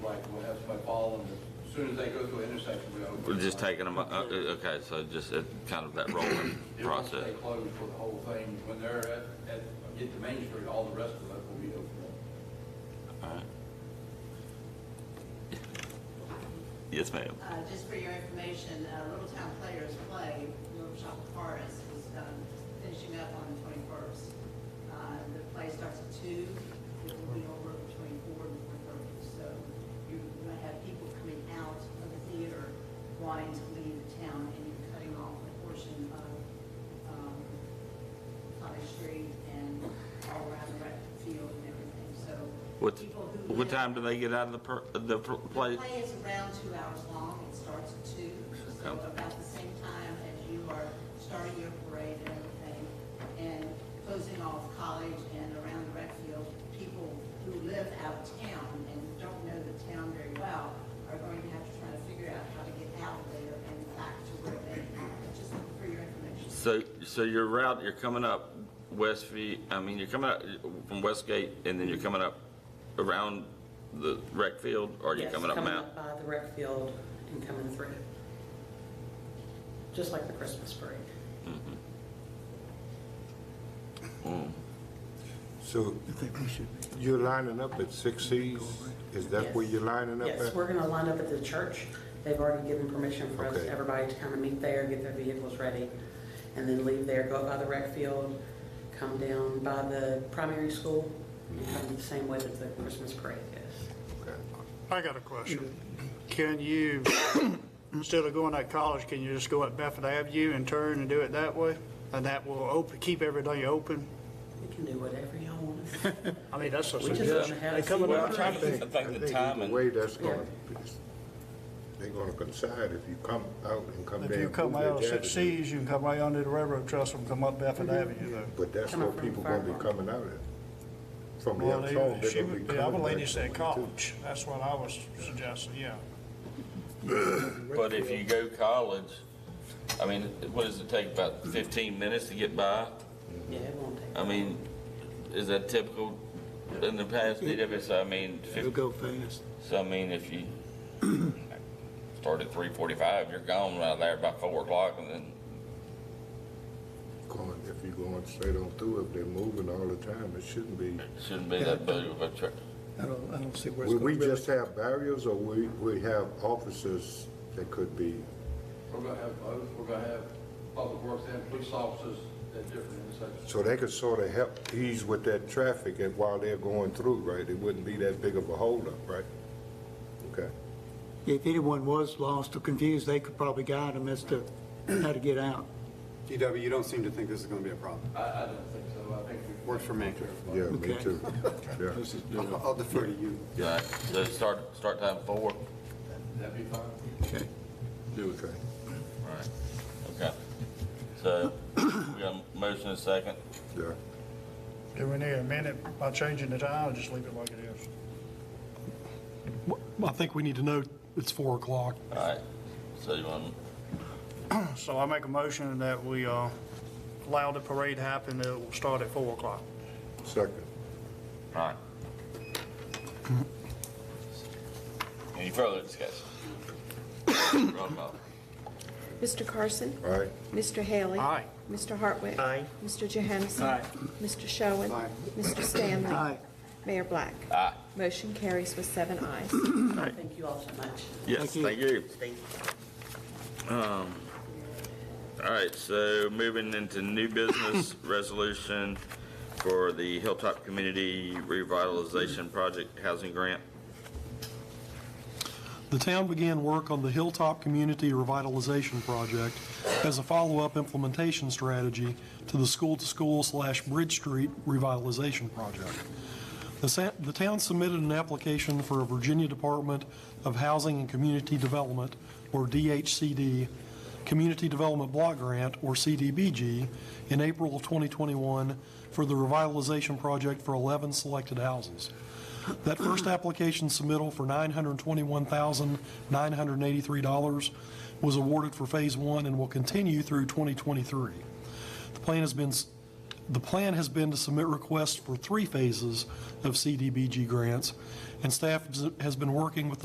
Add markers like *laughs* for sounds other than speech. call them, as soon as they go through an intersection, we open. We're just taking them, uh, uh, okay, so just uh, kind of that *coughs* rolling It won't process. stay closed for the whole thing. When they're at, at, get to Main Street, all the rest of it will be open. Alright. Yes, ma'am. Uh, just for your information, uh, Little Town Players Play, Little Shop of Horrors is um, finishing up on the 21st. Uh, The play starts at two. it will be over between four and 4:30. So you're going to have people coming out of the theater wanting to leave the town, and you're cutting off a portion of um, Cottage Street and all around the rec field and everything, so. What, people who what live- time do they get out of the, per- the pr- the play? play is around two hours long. It starts at two, so Okay. about the same time as you are starting your parade and everything, and closing off college and around the rec field. People who live out of town and don't know the town very well are going to have to try to figure out how to get out there and back to where they, just for your information. So, so your route, you're coming up Westview, I mean, you're coming out from Westgate and then you're coming up around the rec field or you're Yes, coming up Mount? by the rec field and coming through. Just like the Christmas parade. Mm. So you're lining up at Six Seas? Is that where you're lining up at? Yes, we're going to line up at the church. They've already given permission for us, Okay. everybody to kind of meet there, get their vehicles ready, and then leave there, go up by the rec field, come down by the primary school, and come the same way that the Christmas parade is. Okay. I got a question. Can you, *coughs* instead of going that college, can you just go up Bedford Avenue and turn and do it that way? And that will open, keep everything open? We can do whatever y'all *laughs* want us to. I mean, that's a We just want to suggestion. have. They coming some up fun. I think the either timing- way, that's gonna, they're gonna coincide if you come out and come down. If you come Boothridge out of Six Avenue. Seas, you can come right under the railroad trestle and come up Bedford Avenue though. But that's Coming where from people gonna be Fairmont. coming out at. From the Well, outside, they- they're she gonna be would, coming. the other back lady said too. college. That's what I was suggesting, yeah. But if you go college, I mean, what does it take, about 15 minutes to get by? Yeah, it won't take. I mean, is that typical in the past, DWS, I mean, It'll fif- go fast. so I mean, if you start at 3:45, you're gone right there by 4 o'clock, and then, Going- If you're going straight on through, if they're moving all the time, it shouldn't be. it shouldn't be that big of a trip. I don't, I don't see where it's Will going we to really. just have barriers or we, we have officers that could be, We're gonna have both, we're gonna have public works and police officers at different intersections. so they could sort of help ease with that traffic and while they're going through, right? It wouldn't be that big of a holdup, right? Okay. If anyone was lost or confused, they could probably guide them as to how to get out. DW, you don't seem to think this is going to be a problem. I, I don't think so, I think we. Works for me. Yeah, me Okay. too. Yeah. I'll I'll defer to you. All right, So start, start time 4? That'd be fine. Okay. Okay. Right, okay. So, we got a motion and a second. Yeah. Do we need a minute by changing the time or just leave it like it is? I think we need to know it's 4 o'clock. All right, so you want, So I make a motion that we uh, allow the parade happen, it will start at 4 o'clock. Second. all right. Any further discussion? Roll call. Mr. Carson? All right. Mr. Haley? Aye. Mr. Hartwick? Aye. Mr. Johansson? Mr. Showen? Aye. Mr. Stanley? Aye. Mayor Black? Aye. Motion carries with seven ayes. Thank you all so much. Yes, Thank you. thank you. Um, All right, so moving into new *coughs* business resolution for the Hilltop Community Revitalization Project Housing Grant. The town began work on the Hilltop Community Revitalization Project as a follow-up implementation strategy to the school-to-school slash Bridge Street revitalization project. The sa- The town submitted an application for a Virginia Department of Housing and Community Development, or DHCD, Community Development Block Grant, or CDBG, in April of 2021 for the revitalization project for 11 selected houses. That first application submittal for $921,983 was awarded for Phase 1 and will continue through 2023. The plan has been, the plan has been to submit requests for three phases of CDBG grants, and staff has been working with the